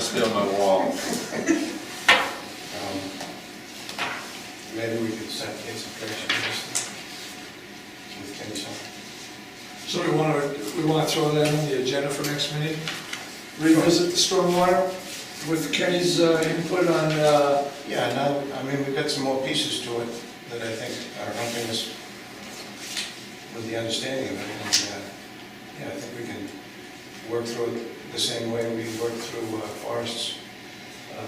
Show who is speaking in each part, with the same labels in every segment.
Speaker 1: still my wall.
Speaker 2: Um, Maybe we could set kids a picture just with Kinsel.
Speaker 3: So we want to, we want to throw that on the agenda for next meeting? Revisit the stormwater with Kenny's uh, input on, uh,
Speaker 2: Yeah, now, I mean, we've got some more pieces to it that I think are helping us with the understanding of it. And, uh, yeah, I think we can work through it the same way we worked through uh, Forrest's um,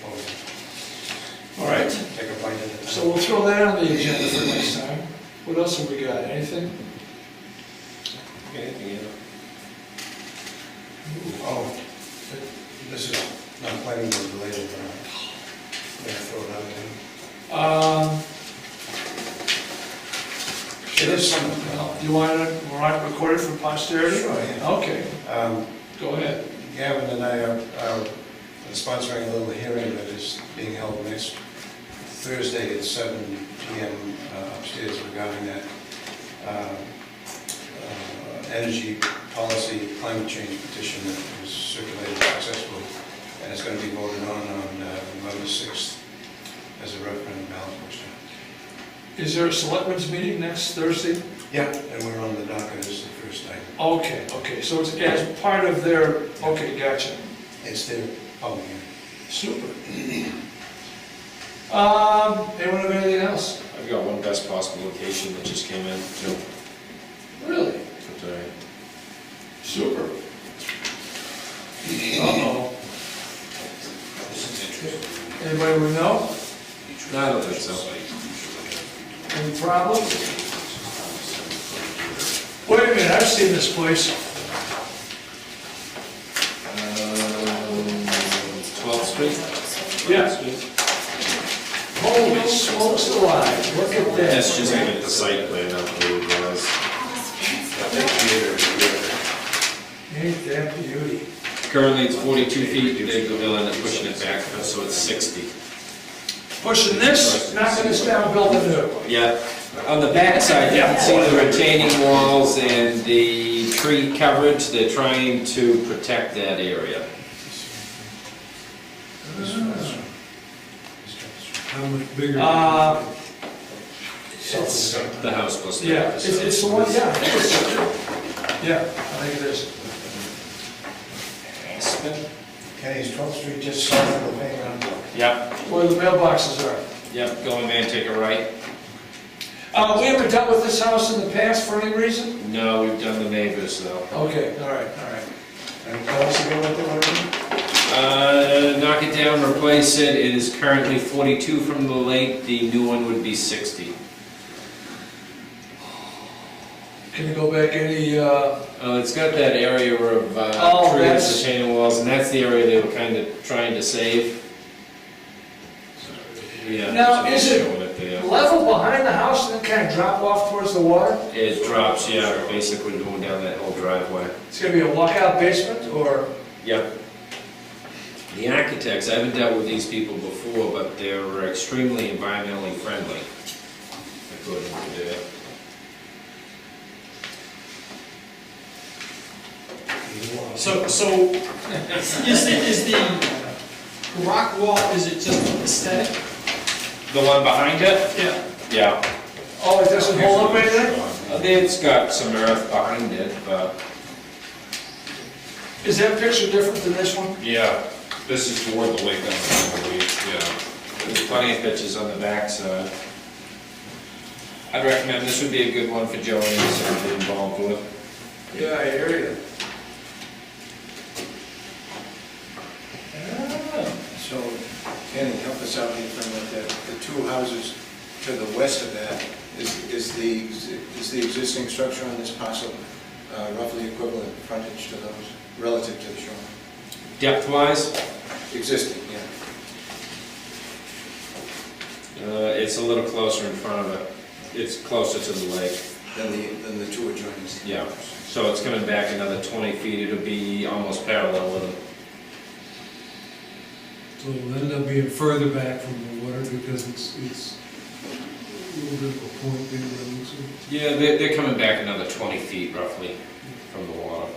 Speaker 2: proposal.
Speaker 3: all right,
Speaker 2: Take a bite at a
Speaker 3: so we'll
Speaker 2: time.
Speaker 3: throw that on the agenda for next time. What else have we got, anything?
Speaker 1: Anything else?
Speaker 2: Oh, this is not planning board related, but I'm gonna throw it out there.
Speaker 3: Um,
Speaker 2: It is something.
Speaker 3: well, You want it, want it recorded for posterity?
Speaker 2: Sure, yeah.
Speaker 3: Okay,
Speaker 2: Um,
Speaker 3: go ahead.
Speaker 2: Gavin and I are are sponsoring a little hearing that is being held next Thursday at seven PM uh, upstairs regarding that um, uh, energy policy climate change petition that was circulated successfully, and it's going to be voted on on uh, November sixth as a referendum ballot question.
Speaker 3: Is there a selectmen's meeting next Thursday?
Speaker 2: Yeah. And we're on the docket as the first item.
Speaker 3: Okay, okay, so it's as part of their, okay, gotcha.
Speaker 2: It's their public hearing.
Speaker 3: Super. Um, anyone have anything else?
Speaker 1: I've got one best possible location that just came in, too.
Speaker 3: Really?
Speaker 1: That's all right.
Speaker 3: Super. Uh-oh. Anybody we know?
Speaker 1: No, I don't think so.
Speaker 3: Any problems? Wait a minute, I've seen this place.
Speaker 1: Twelfth Street?
Speaker 3: Yeah. Holy smokes alive, look at
Speaker 1: That's
Speaker 3: this.
Speaker 1: just gonna get the site plan up for you guys.
Speaker 3: Ain't that beauty?
Speaker 1: Currently, it's forty-two feet, they go in and pushing it back, so it's sixty.
Speaker 3: Pushing this, knocking this down, building new.
Speaker 1: Yeah, on the back side, you can see the retaining walls and the tree coverage, they're trying to protect that area.
Speaker 4: How much bigger?
Speaker 3: Uh,
Speaker 2: So-
Speaker 1: The house was there.
Speaker 3: Yeah, it's, it's the one, yeah. Yeah, I think it is.
Speaker 2: Okay, is 12th Street just south of the playground?
Speaker 1: Yep,
Speaker 3: Where the mailboxes are.
Speaker 1: yep, go in there and take a right.
Speaker 3: Uh, we haven't dealt with this house in the past for any reason?
Speaker 1: No, we've done the neighbors though.
Speaker 3: Okay, all right, all right.
Speaker 2: And tell us again what they want to do?
Speaker 1: Uh, knock it down, replace it, it is currently forty-two from the lake, the new one would be sixty.
Speaker 3: Can you go back any, uh,
Speaker 1: Uh, it's got that area of,
Speaker 3: Oh,
Speaker 1: uh, trees,
Speaker 3: that's-
Speaker 1: retaining walls, and that's the area they were kind of trying to save. Yeah.
Speaker 3: Now,
Speaker 1: there's
Speaker 3: is
Speaker 1: an
Speaker 3: it-
Speaker 1: issue with it there.
Speaker 3: level behind the house and then kind of drop off towards the water?
Speaker 1: It drops, yeah, basically going down that whole driveway.
Speaker 3: It's gonna be a walkout basement or?
Speaker 1: Yep. The architects, I haven't dealt with these people before, but they're extremely environmentally friendly, according to their
Speaker 2: You want-
Speaker 5: So, so, is, is the rock wall, is it just aesthetic?
Speaker 1: The one behind it?
Speaker 5: Yeah.
Speaker 1: Yeah. Uh,
Speaker 3: Oh, it doesn't hold up anything?
Speaker 1: It's got some earth behind it, but.
Speaker 3: Is that picture different than this one?
Speaker 1: Yeah, this is toward the lake, I believe, yeah. There's plenty of pitches on the backside. I'd recommend, this would be a good one for Joe Anderson to be involved with.
Speaker 3: Yeah, I hear you.
Speaker 2: So, Kenny, help us out here from that, the two houses to the west of that, is, is the, is the existing structure on this parcel uh, roughly equivalent frontage to those, relative to the shoreline?
Speaker 1: Depth-wise,
Speaker 2: Existing, yeah.
Speaker 1: uh, it's a little closer in front of it. It's closer to the lake,
Speaker 2: Than the, than the two adjoining.
Speaker 1: yeah. So it's coming back another 20 feet, it'll be almost parallel with it.
Speaker 4: So it'll end up being further back from the water because it's, it's a little bit of a point there, but it looks like.
Speaker 1: Yeah, they're, they're coming back another 20 feet roughly from the water.